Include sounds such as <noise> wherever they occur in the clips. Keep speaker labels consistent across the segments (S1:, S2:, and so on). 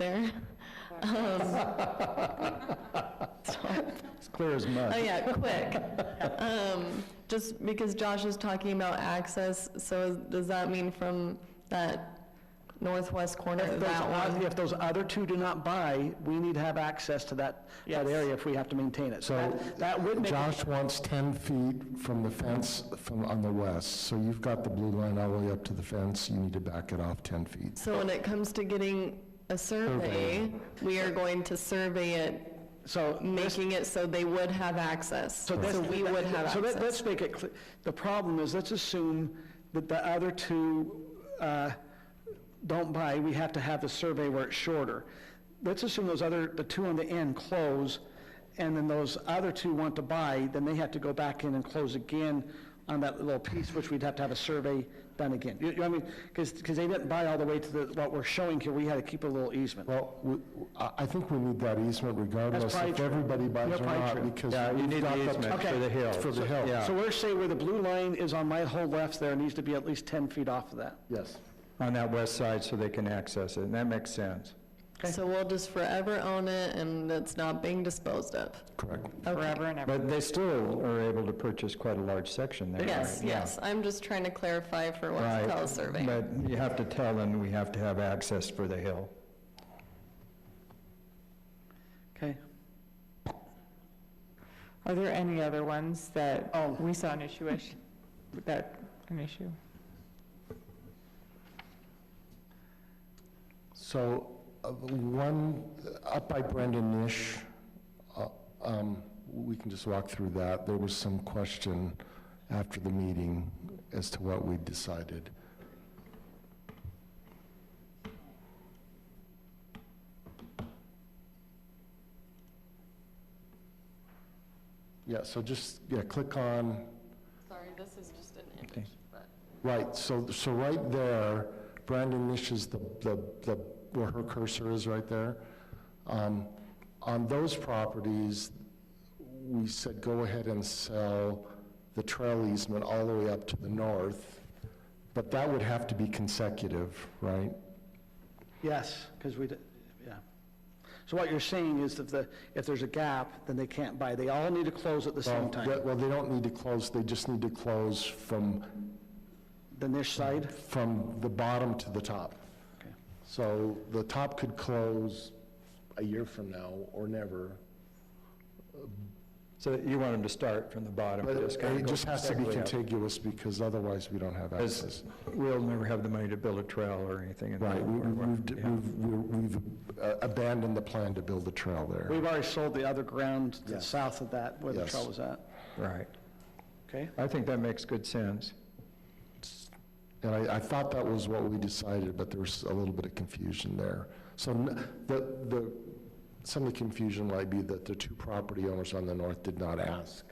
S1: <laughs> Um,
S2: It's clear as mud.
S1: Oh, yeah, quick. Um, Just because Josh is talking about access, so does that mean from that northwest corner
S2: If
S1: of
S2: those
S1: that
S2: oth-
S1: one?
S2: If those other two do not buy, we need to have access to that, that
S3: Yes.
S2: area if we have to maintain it. So
S4: So
S2: that- that would make,
S4: Josh wants 10 feet from the fence from, on the west. So you've got the blue line all the way up to the fence, you need to back it off 10 feet.
S1: So when it comes to getting a survey, we are going to survey it,
S2: so this-
S1: making it so they would have access. So
S2: that's-
S1: we would have
S2: So let-
S1: access.
S2: let's make it, clear. the problem is, let's assume that the other two uh, don't buy, we have to have the survey where it's shorter. Let's assume those other, the two on the end close, and then those other two want to buy, then they have to go back in and close again on that little piece, which we'd have to have a survey done again. You you know what I mean? Because, they didn't buy all the way to the, what we're showing here, we had to keep a little easement.
S4: Well, we- I, I think we need that easement regardless
S2: probably
S4: if
S2: true.
S4: everybody
S2: Yeah,
S4: buys or
S2: probably
S4: not,
S2: true.
S4: because.
S5: Yeah, you
S4: we've
S5: need the
S4: got
S5: easement
S2: Okay. for the hill.
S4: For the hill.
S2: So we're saying where the blue line is on my whole left there, needs to be at least 10 feet off of that.
S4: Yes.
S5: on that west side so they can access it, and that makes sense.
S1: So we'll just forever own it and it's not being disposed of.
S4: Correct.
S3: forever and ever.
S5: But they still are able to purchase quite a large section there.
S1: Yes,
S5: right? Yeah.
S1: yes, I'm just trying to clarify for what's
S5: Right.
S1: called survey.
S5: But you have to tell them we have to have access for the hill.
S2: Okay?
S3: Are there any other ones that
S2: Oh.
S3: we saw an issue with, that, an issue?
S4: So uh, one, uh, up by Brendan Nish, uh, um, we can just walk through that. There was some question after the meeting as to what we decided. Yeah, so just, yeah, click on,
S1: Sorry, this is just an
S5: Okay.
S1: but.
S4: right, so, so right there, Brandon Nish is the, the, the where her cursor is right there. Um, On those properties, we said, go ahead and sell the trail easement all the way up to the north, but that would have to be consecutive, right?
S2: Yes, because we, did- yeah. So what you're saying is if the, if there's a gap, then they can't buy. They all need to close at the same time.
S4: Well, Well, they don't need to close, they just need to close from,
S2: The niche side,
S4: from the bottom to the top.
S2: Okay.
S4: So the top could close a year from now or never,
S5: So you want them to start from the bottom.
S4: but
S5: kinda
S4: it
S5: go
S4: just has to be
S5: segue up.
S4: contiguous because otherwise we don't have
S5: As-
S4: access.
S5: We'll never have the money to build a trail or anything. in that
S4: Right, we-
S5: or what-
S4: we've,
S5: yeah.
S4: we've- we've uh, abandoned the plan to build a trail there.
S2: we've already sold the other ground to the
S4: Yes.
S2: south of that, where the
S4: Yes.
S2: trail was at.
S5: Right.
S2: Okay?
S5: I think that makes good sense.
S4: And I, I thought that was what we decided, but there was a little bit of confusion there. So n- the, the, some of the confusion might be that the two property owners on the north did not ask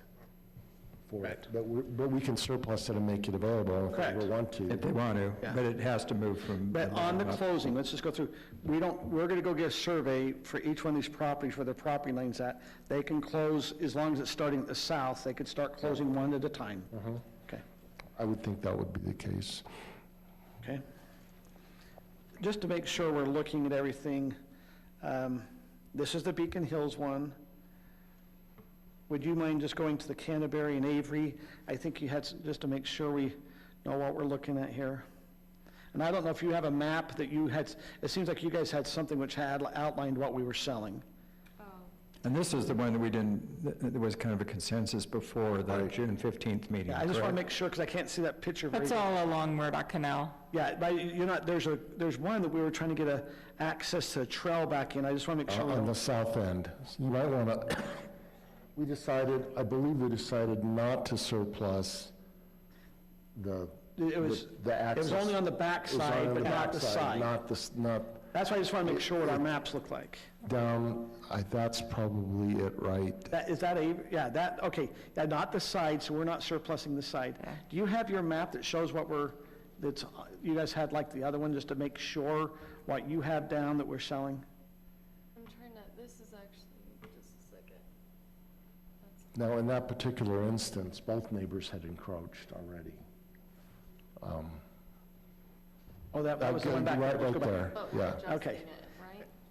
S4: for it. But we, but we can surplus it and make it available if we
S2: Correct.
S4: ever want to.
S5: If they want to,
S2: Yeah.
S5: but it has to move from.
S2: But on the
S5: bottom up.
S2: closing, let's just go through, we don't, we're going to go get a survey for each one of these properties where their property line's at. They can close, as long as it's starting at the south, they could start closing one at a time.
S4: Mm-hmm.
S2: Okay.
S4: I would think that would be the case.
S2: Okay. Just to make sure we're looking at everything, um, this is the Beacon Hills one. Would you mind just going to the Canterbury and Avery? I think you had, s- just to make sure we know what we're looking at here. And I don't know if you have a map that you had, s- it seems like you guys had something which had outlined what we were selling.
S5: And this is the one that we didn't, th- th- there was kind of a consensus before the June 15th meeting,
S2: Yeah, I just want to
S5: correct?
S2: make sure, because I can't see that picture very
S3: That's all along Murdoch Canal.
S2: Yeah, but you- you're not, there's a, there's one that we were trying to get a access to a trail back in. I just want to make sure we
S4: Uh, on
S2: don't
S4: the south end. You might want to, <coughs> we decided, I believe we decided not to surplus the,
S2: It was, it
S4: the- the
S2: was
S4: access.
S2: only on the
S4: It was on
S2: backside, but
S4: the
S2: not the
S4: backside,
S2: side.
S4: Not the, s- not
S2: That's why I just want to make sure what our maps look like.
S4: down, I, that's probably it, right?
S2: That, is that a, yeah, that, okay, yeah, not the side, so we're not surplusing the side. Do you have your map that shows what we're, that's, you guys had like the other one, just to make sure what you have down that we're selling?
S6: I'm trying to, this is actually, just a second. That's
S4: Now, in that particular instance, both neighbors had encroached already.
S2: Oh, that, that was the one back.
S4: Right,
S2: Let's go
S4: right
S2: back.
S4: there, yeah.
S6: about
S2: Okay.
S6: adjusting it.